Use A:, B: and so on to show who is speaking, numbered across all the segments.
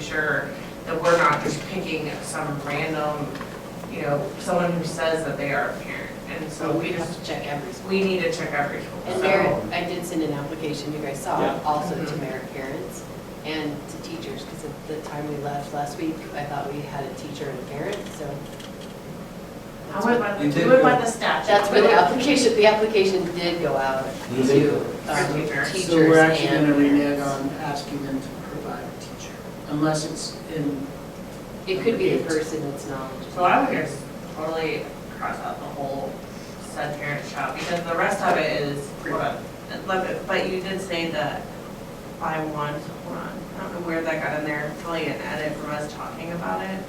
A: sure that we're not just picking some random, you know, someone who says that they are a parent. And so we
B: You have
A: just,
B: to check every school.
A: we need to check every school.
B: And
A: So-
B: Merritt, I did send an application, you guys saw,
C: Yeah.
B: also to
A: Mhm.
B: Merritt parents and to teachers, because at the time we left last week, I thought we had a teacher and a parent, so.
A: I went by,
C: You
A: the-
C: did
A: we went by
C: go-
A: the statute.
B: That's where the application, the application did go out
C: You
B: to
C: did?
B: um,
A: Teacher.
B: teachers
D: Mm-hmm. So we're actually
B: and
D: gonna renege
B: parents.
D: on asking them to provide a teacher, unless it's in,
B: It could be the person that's knowledgeable.
A: So I would just totally cross out the whole said parent shop, because the rest of it is, but, but you did say that by one, hold on, I don't know where that got in there, probably an edit from us talking about it.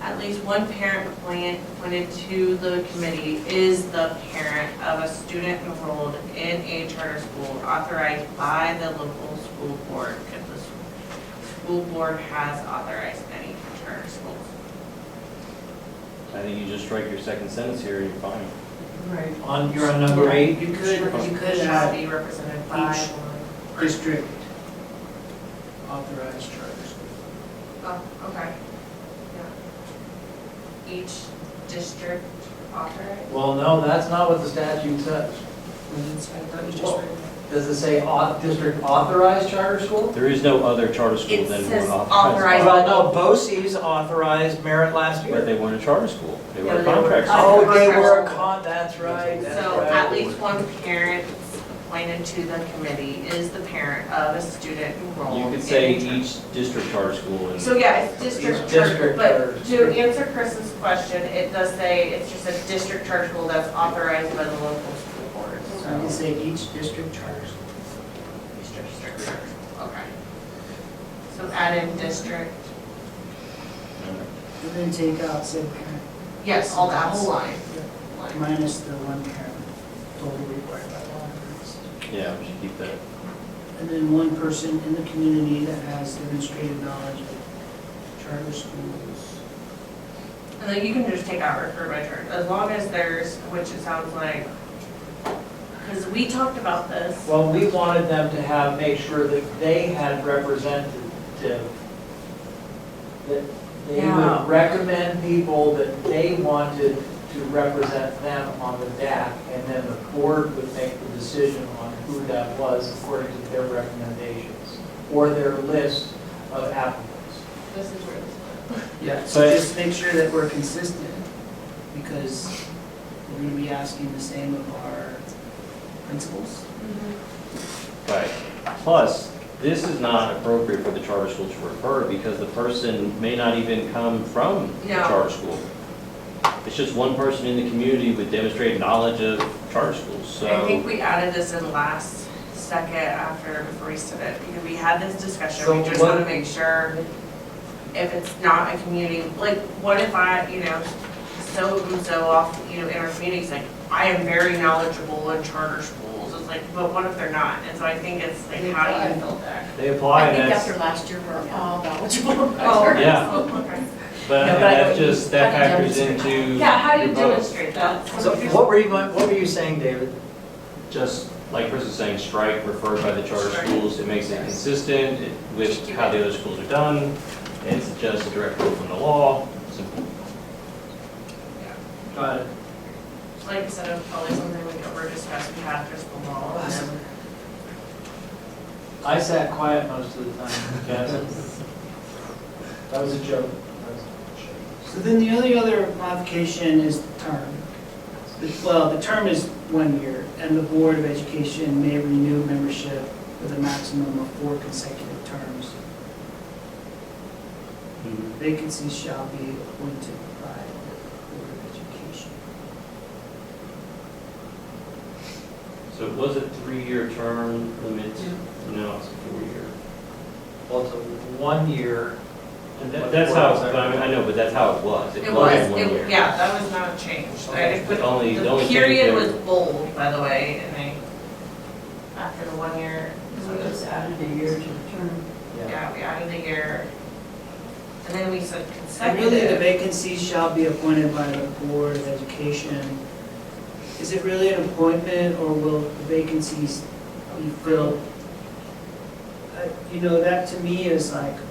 A: At least one parent appointed appointed to the committee is the parent of a student enrolled in a charter school authorized by the local school board, if the s- school board has authorized any charter schools.
C: I think you just strike your second sentence here, you're fine.
A: Right.
E: On, you're on number eight,
D: you could, you could uh,
A: Shall
D: have
A: be represented by
D: Each-
A: one.
D: district authorized charter school.
A: Oh, okay. Yeah. Each district authorized?
E: well, no, that's not what the statute says. Does it say au- district authorized charter school?
C: There is no other charter school
A: It
C: than
A: says
C: one
A: authorized.
C: authorized.
E: Well, no, BOCES authorized merit last
C: But
E: year.
C: they weren't a charter school, they
A: Yeah,
C: were a
A: they were-
C: contract school.
E: Oh, they were a con, that's right, that's
A: So
E: right.
A: at least one parent appointed to the committee is the parent of a student enrolled.
C: You
A: in
C: could say
A: a-
C: each district charter school and.
A: So yeah, it's district
E: Each
A: charter,
E: district
A: but
E: charter.
A: to answer Chris's question, it does say it's just a district charter school that's authorized by the local school board,
D: So you can
A: so.
D: say each district charter school.
A: Each district charter school, okay. So add in district
D: And then take out said parent,
A: Yes, all that whole line.
D: minus the one parent, totally required by law. and
C: Yeah, we should keep that.
D: it's- And then one person in the community that has demonstrated knowledge of charter schools.
A: And then you can just take out refer by charge, as long as there's, which it sounds like, because we talked about this.
E: Well, we wanted them to have, make sure that they had representative, that they
A: Yeah.
E: would recommend people that they wanted to represent them on the DAC, and then the board would make the decision on who that was according to their recommendations, or their list of applicants.
A: This is where this
D: Yeah, so
C: But-
D: just make sure that we're consistent, because we're gonna be asking the same of our principals.
C: Right. Plus, this is not appropriate for the charter school to refer because the person may not even come from the
A: No.
C: charter school. It's just one person in the community with demonstrated knowledge of charter schools,
A: I think
C: so.
A: we added this in last second after, before we submitted, because we had this discussion, we
E: So
A: just want to
E: what-
A: make sure if it's not a community, like, what if I, you know, so and so off, you know, in our communities, like, I am very knowledgeable in charter schools, it's like, but what if they're not? And so I think it's like, how do you build that?
C: They apply and that's,
B: last year, we're all knowledgeable.
C: yeah,
A: Okay.
C: but
B: No, but I
C: that's
B: don't-
C: just, that
B: how do you
C: factors
B: demonstrate?
C: into.
A: Yeah, how do you
C: your vote.
A: demonstrate that?
E: So what were you, what were you saying, David?
C: Just like Chris is saying, strike referred by the charter
A: Strike.
C: schools, it makes it consistent it- with how the other schools are done. It's just a direct quote from the law, simple.
E: Got it.
A: Like I said, it's probably something we over discussed, we had crystal ball. and then-
E: I sat quiet most of the time, Jess. That was a joke.
D: So then the only other modification is the term. The- Well, the term is one year, and the Board of Education may renew membership with a maximum of four consecutive terms.
C: Mm-hmm.
D: Vacancies shall be appointed by the Board of Education.
C: So it was a three-year term limit, now it's a four-year.
E: Well, it's a one year.
C: And that- that's how, I mean, I know, but that's how it was.
A: It
C: was
A: was,
C: one year.
A: it, yeah, that was not changed. I just put,
C: The only- the
A: the
C: only thing
A: period
C: there-
A: was bold, by the way, and I, after the one year, so it was,
B: added a year to the term.
E: Yeah.
A: yeah, we added a year. And then we said
D: And really, the
A: consecutive.
D: vacancies shall be appointed by the Board of Education. Is it really an appointment, or will the vacancies be filled? Uh, You know, that to me is like,